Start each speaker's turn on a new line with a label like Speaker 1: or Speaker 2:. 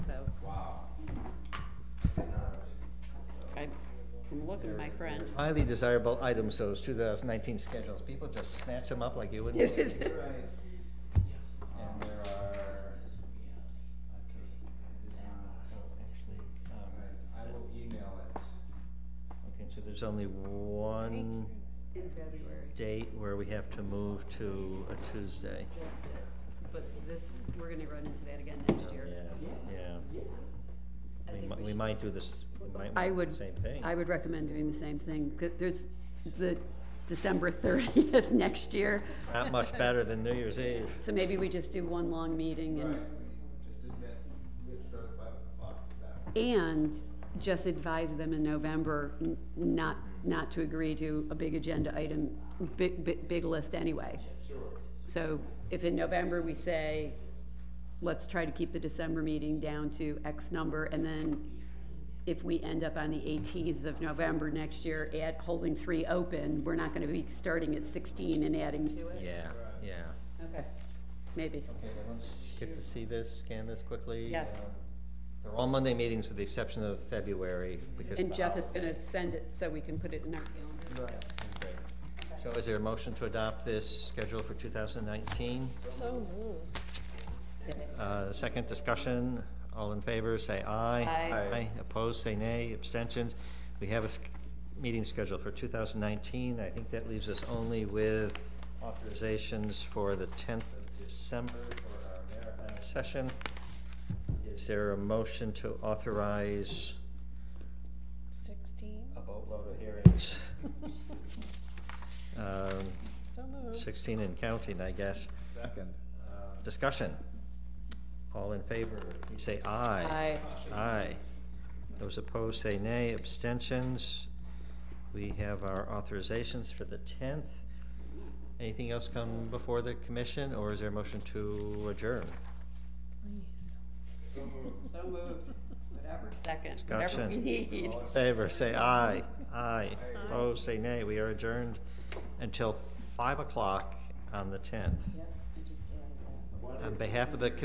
Speaker 1: welcome, my friend.
Speaker 2: Highly desirable items, those 2019 schedules. People just snatch them up like you wouldn't. believe.
Speaker 3: That's right.
Speaker 2: And there are, oh, actually, um,
Speaker 3: I will email it.
Speaker 2: okay, so there's only one
Speaker 4: in February.
Speaker 2: date where we have to move to a Tuesday.
Speaker 4: That's it. But this, we're gonna run into that again next year.
Speaker 2: Yeah,
Speaker 4: I
Speaker 2: yeah. We
Speaker 4: think
Speaker 2: mi-
Speaker 4: we
Speaker 2: We
Speaker 4: should-
Speaker 2: might do this, we might
Speaker 1: I
Speaker 2: do
Speaker 1: would,
Speaker 2: the same thing.
Speaker 1: I would recommend doing the same thing. 'Cause There's the December thirtieth next year,
Speaker 2: Not much better than New Year's Eve.
Speaker 1: so maybe we just do one long meeting and,
Speaker 3: just did that, we had started five o'clock, that.
Speaker 1: and just advise them in November n- not, not to agree to a big agenda item, big, big, big list anyway. So if in November we say, let's try to keep the December meeting down to X number, and then if we end up on the eighteenth of November next year at holding three open, we're not gonna be starting at sixteen and adding to it?
Speaker 2: Yeah, yeah.
Speaker 1: Okay. Maybe.
Speaker 2: Okay, well, let's get to see this, scan this quickly.
Speaker 1: Yes.
Speaker 2: Um, They're all Monday meetings with the exception of February because. of
Speaker 1: And
Speaker 2: the
Speaker 1: Jeff is
Speaker 2: holiday.
Speaker 1: gonna send it so we can put it in our calendar.
Speaker 2: So is there a motion to adopt this schedule for 2019?
Speaker 4: So moved.
Speaker 2: Uh, Second discussion, all in favor, say aye.
Speaker 1: Aye. Aye.
Speaker 2: Opposed, say nay. Abstentions? We have a sch- meeting scheduled for 2019. I think that leaves us only with authorizations for the 10th of December for our marathon session. Is there a motion to authorize
Speaker 5: Sixteen,
Speaker 2: a boatload of hearings? Um,
Speaker 5: so moved.
Speaker 2: 16 and counting, I guess.
Speaker 3: Second.
Speaker 2: Discussion. All in favor, please say aye.
Speaker 1: Aye.
Speaker 2: Aye. Those opposed, say nay. Abstentions. We have our authorizations for the tenth. Anything else come before the commission, or is there a motion to adjourn?
Speaker 5: Please.
Speaker 1: So moved, whatever, second, whatever
Speaker 2: Discussion.
Speaker 1: we need.
Speaker 2: All in favor, say aye. Aye. Opposed, say nay. We are adjourned until five o'clock on the tenth. On behalf of the